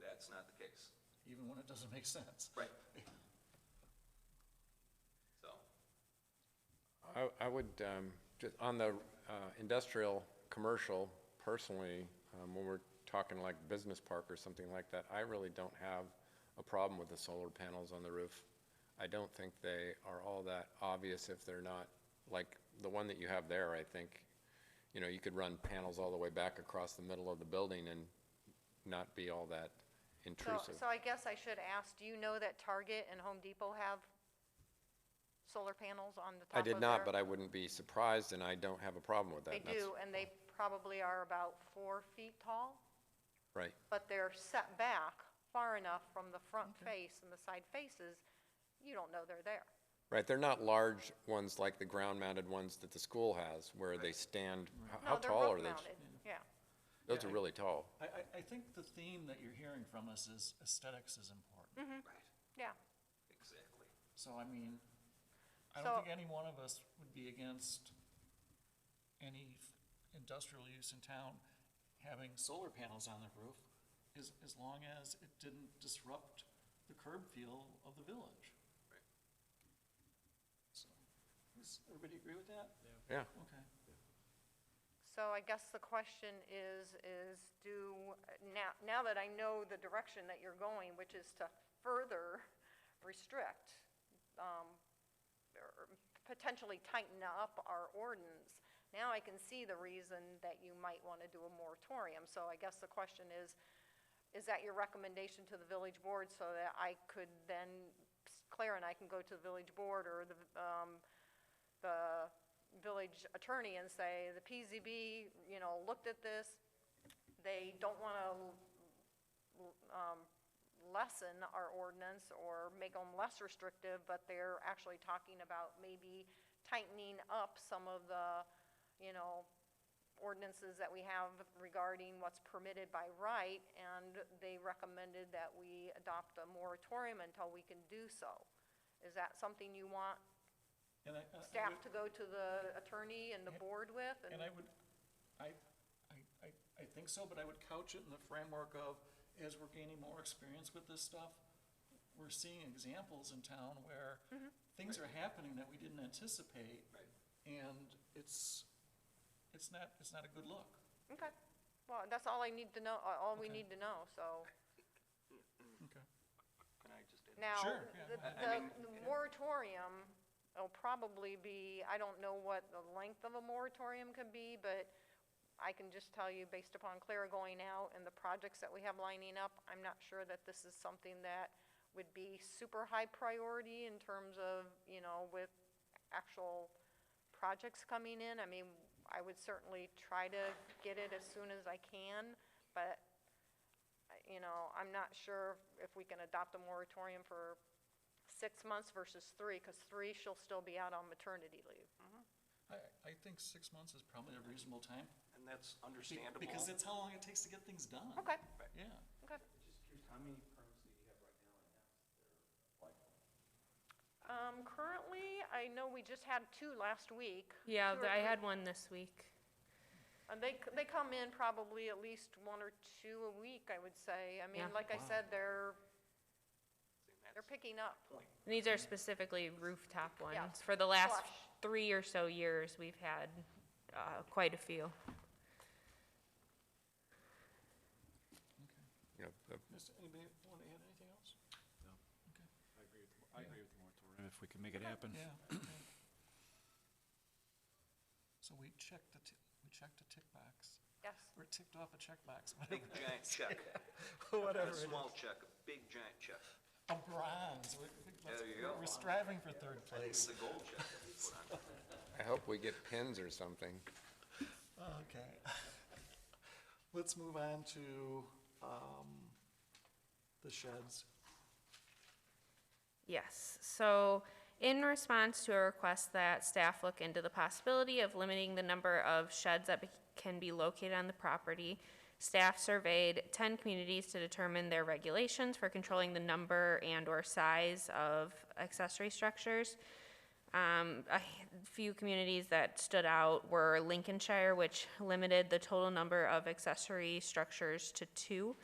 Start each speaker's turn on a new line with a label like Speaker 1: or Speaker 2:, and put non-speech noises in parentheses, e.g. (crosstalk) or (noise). Speaker 1: that's not the case.
Speaker 2: even when it doesn't make sense.
Speaker 1: Right. So,
Speaker 3: I, I would, um, just on the, uh, industrial, commercial, personally, um, when we're talking like business park or something like that, I really don't have a problem with the solar panels on the roof. I don't think they are all that obvious if they're not, like, the one that you have there, I think, you know, you could run panels all the way back across the middle of the building and not be all that
Speaker 4: So,
Speaker 3: intrusive.
Speaker 4: so I guess I should ask, do you know that Target and Home Depot have solar panels on the top
Speaker 3: I
Speaker 4: of their?
Speaker 3: did not, but I wouldn't be surprised, and I don't have a problem with that.
Speaker 4: They
Speaker 3: and that's-
Speaker 4: do, and they probably are about four feet tall,
Speaker 3: Right.
Speaker 4: but they're set back far enough from the front face and the side faces, you don't know they're there.
Speaker 3: Right, they're not large ones like the ground-mounted ones that the school has, where they stand, h- how
Speaker 4: No, they're
Speaker 3: tall are
Speaker 4: roof
Speaker 3: those?
Speaker 4: mounted, Yeah,
Speaker 3: Those are really tall.
Speaker 2: I, I, I think the theme that you're hearing from us is aesthetics is important.
Speaker 1: right,
Speaker 4: yeah.
Speaker 1: exactly.
Speaker 2: So, I mean, I
Speaker 4: So-
Speaker 2: don't think any one of us would be against any f- industrial use in town having solar panels on their roof, as, as long as it didn't disrupt the curb feel of the village.
Speaker 1: Right.
Speaker 2: So, does everybody agree with that?
Speaker 3: Yeah.
Speaker 2: Okay.
Speaker 4: So I guess the question is, is do, now, now that I know the direction that you're going, which is to further restrict, um, or potentially tighten up our ordinance, now I can see the reason that you might want to do a moratorium. So I guess the question is, is that your recommendation to the village board so that I could then, Claire and I can go to the village board or the, um, the village attorney and say, the PZB, you know, looked at this, they don't want to um, lessen our ordinance or make them less restrictive, but they're actually talking about maybe tightening up some of the, you know, ordinances that we have regarding what's permitted by right, and they recommended that we adopt a moratorium until we can do so. Is that something you want
Speaker 2: And I- I- I would-
Speaker 4: staff to go to the attorney and the board with,
Speaker 2: And I would, I, I, I, I think so, but I would couch it in the framework of, as we're gaining more experience with this stuff, we're seeing examples in town where things are happening that we didn't anticipate.
Speaker 1: Mm-hmm. Right.
Speaker 2: And it's, it's not, it's not a good look.
Speaker 4: okay. Well, that's all I need to know, uh, all we
Speaker 2: Okay.
Speaker 4: need to know, so.
Speaker 1: Mm-hmm.
Speaker 2: Okay.
Speaker 1: Can I just?
Speaker 4: Now,
Speaker 2: Sure, yeah, go
Speaker 4: the-
Speaker 1: ahead. I mean,
Speaker 4: the, the
Speaker 1: yeah.
Speaker 4: moratorium will probably be, I don't know what the length of a moratorium could be, but I can just tell you, based upon Clara going out and the projects that we have lining up, I'm not sure that this is something that would be super high priority in terms of, you know, with actual projects coming in. I mean, I would certainly try to get it as soon as I can, but, I- you know, I'm not sure if we can adopt a moratorium for six months versus three, because three, she'll still be out on maternity leave.
Speaker 2: I, I think six months is probably a reasonable time.
Speaker 1: And that's
Speaker 2: be-
Speaker 1: understandable.
Speaker 2: Because that's how long it takes to get things done.
Speaker 4: Okay,
Speaker 2: Yeah.
Speaker 4: okay.
Speaker 5: Just curious, how many permits do you have right now in house that are like?
Speaker 4: Um, currently, I know we just had two last week.
Speaker 6: Yeah,
Speaker 4: Two or
Speaker 6: th-
Speaker 4: three.
Speaker 6: I had one this week.
Speaker 4: And they, c- they come in probably at least one or two a week, I would say. I
Speaker 6: Yeah.
Speaker 4: mean, like I said, they're, they're
Speaker 1: That's
Speaker 4: picking up.
Speaker 1: point.
Speaker 6: And these are specifically rooftop
Speaker 4: Yeah,
Speaker 6: ones. For the last
Speaker 4: flush.
Speaker 6: three or so years, we've had uh, quite a few.
Speaker 3: You know, the-
Speaker 2: Does anybody want to add anything else?
Speaker 5: I agree with, I agree with the moratorium. If we can make it happen.
Speaker 1: (coughs)
Speaker 2: Yeah. So we checked the, ti- we checked a tick box.
Speaker 4: Yes,
Speaker 2: Or ticked off a (laughs) checkbox, whatever,
Speaker 1: Big giant check.
Speaker 2: (laughs) whatever
Speaker 1: Not a
Speaker 2: it is.
Speaker 1: small check, a big giant check.
Speaker 2: A bronze, we're,
Speaker 1: There you go.
Speaker 2: we're striving for third
Speaker 1: It's
Speaker 2: place.
Speaker 1: the gold check that we put on.
Speaker 3: I hope we get pins or something.
Speaker 2: Okay. (laughs) Let's move on to, um, the sheds.
Speaker 6: Yes, so in response to a request that staff look into the possibility of limiting the number of sheds that be- can be located on the property, staff surveyed ten communities to determine their regulations for controlling the number and/or size of accessory structures. Um, a h- few communities that stood out were Lincolnshire, which limited the total number of accessory structures to two.